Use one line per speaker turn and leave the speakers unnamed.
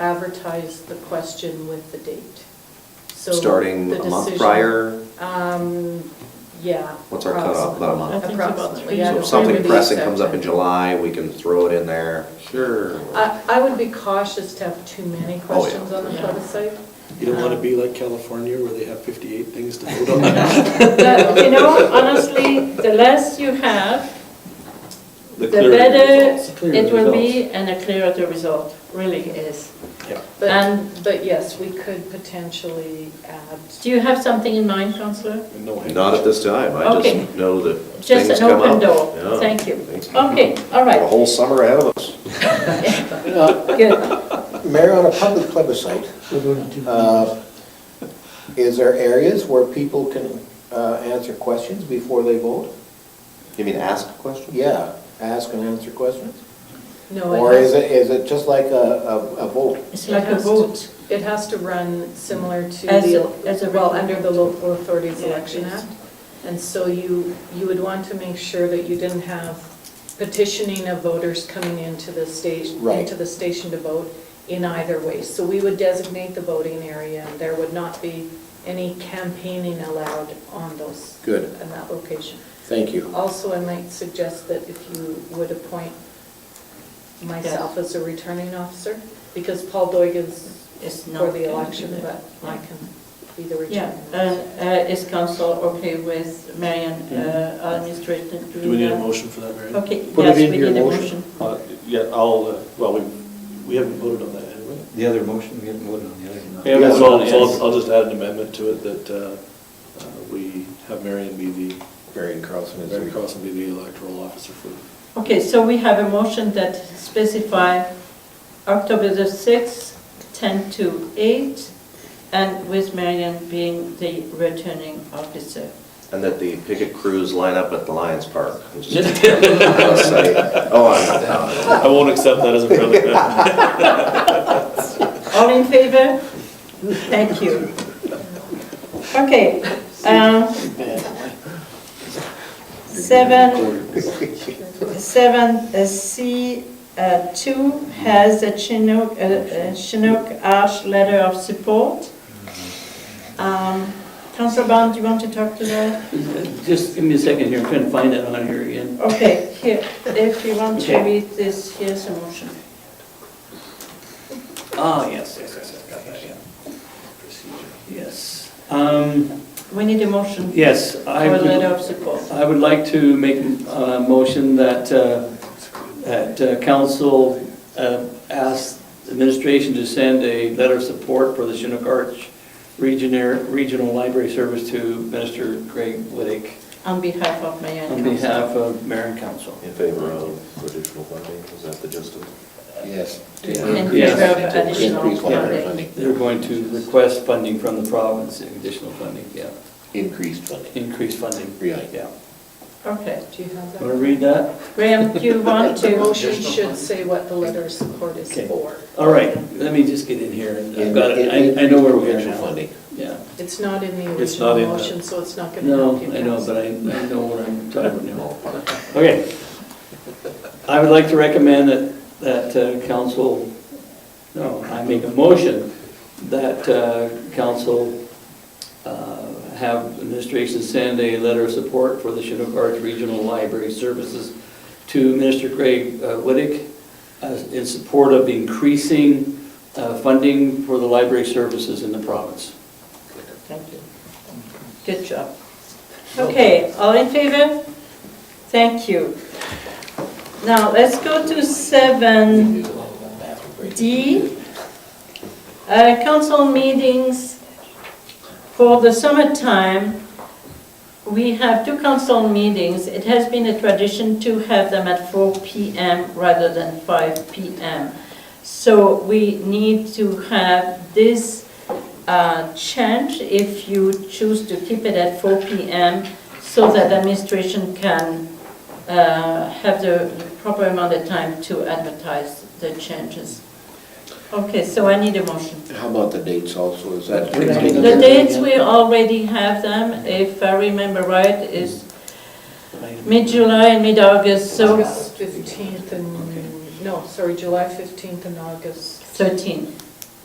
advertise the question with the date. So
Starting
the
a month
decision-
prior?
Um, yeah.
What's our cutoff? About a month?
I think it's about
Approximately,
three
yeah.
So if
weeks.
something
Release
pressing comes up in
section.
July, we can throw it in there. Sure.
Uh,
I, I would be cautious to have too
Oh,
many questions on the
Yeah.
plebiscite.
You don't want to be like California where they have 58 things to vote on.
But, You know, honestly, the less you have, the
clearer the
better
results. Clearer
it
the
will be and the clearer the result really is.
Yeah.
But, but yes, we could potentially add,
Do you have something in mind, Counselor?
No hand.
Not at this time, I
Okay.
just know that
Just
things
an
come up.
open door.
Yeah.
Thank you.
Things-
Okay, all
A
right,
whole summer ahead of us.
good.
Mayor, on a public plebiscite, uh, is there areas where people can uh, answer questions before they vote?
You mean ask a question?
Yeah, ask and answer questions?
no,
Or
it
is
has,
it, is it just like a, a a vote?
It's like a vote.
it has to run similar to
As
the,
a- as a
well,
written-
under the Local Authorities
Yeah,
Election
yes.
Act. And so you, you would want to make sure that you didn't have petitioning of voters coming into the station,
Right.
into the station to vote in either way. So we would designate the voting area, and there would not be any campaigning allowed on those,
Good,
in that location.
thank you.
Also, I might suggest that if you would appoint myself as a returning officer, because Paul Doigan's
It's not
for the
gonna
election, but
do that.
I can be the
Yeah,
returning.
uh,
officer.
uh, is council okay with Marion uh, administrator doing that?
Mm. Do we need a motion for that, Mary?
Okay,
Put it
yes, we
into your
need a
motion.
motion.
Uh, Yeah, I'll, uh, well, we, we haven't voted on that, have we?
The other motion, we haven't voted on the other. one.
Yeah,
Yeah,
so I'll,
it's-
so I'll- I'll just add an amendment to it that uh, uh, we have Marion be the,
Marion Carlson
Mary Carlson be the electoral officer for,
Okay, so we have a motion that specify October the 6th, 10 to 8, and with Marion being the returning officer.
And that the picket crews line up at the Lions Park. and just- Oh, I'm down.
I won't accept that as a friendly.
All in favor? Thank you. Okay. um, Seven, seven uh, C uh, two has a Chinook, uh, uh, Chinook Ash letter of support. Um, Councilor Bond, do you want to talk to that?
Just give me a second here, I'm trying to find that on here again.
Okay, here, if you want to
Okay.
read this, here's a motion.
Ah, yes, yes, yes, yes, got that, yeah. Yes. Um,
We need a motion for
Yes, I
a letter
would,
of support.
I would like to make a motion that, uh, that uh, council uh, ask administration to send a letter of support for the Chinook Arch Regional, Regional Library Service to Minister Greg Whittick
On behalf of Mayor and
on
Council.
behalf of mayor and council.
In favor of additional funding, is that the gist of it?
Yes.
In
Yes.
favor of additional
Increase water
funding.
funding,
They're going to request funding from the province, additional funding, yeah,
increased funding.
increased funding.
Right.
Yeah.
Okay.
Do you have
Want to
that?
read that?
Graham, do you want
The
to?
motion should say what the letter of support is
Okay.
for.
All right, let me just get in here, and I've
In-
got it,
in-
I, I know where we are
increased
now.
funding.
Yeah,
It's not in the
It's not
original
in the-
motion, so it's not going to
no,
help you.
I know,
pass.
but I, I know what I'm talking about now. Okay. I would like to recommend that, that uh, council, no, I make a motion that uh, council uh, have administration send a letter of support for the Chinook Arch Regional Library Services to Minister Greg uh, Whittick uh, in support of increasing uh, funding for the library services in the province.
Thank you. Good job. Okay, all in favor? Thank you. Now, let's go to seven D. Uh, Council meetings for the summertime. We have two council meetings. It has been a tradition to have them at four PM rather than five PM. So we need to have this uh, change if you choose to keep it at 4 PM so that administration can uh, have the proper amount of time to advertise the changes. Okay, so I need a motion.
How about the dates also, is that?
We're not-
The dates, we already have them, if I remember right, is mid-July and mid-August, so
August 15th and, no, sorry, July 15th and August
13.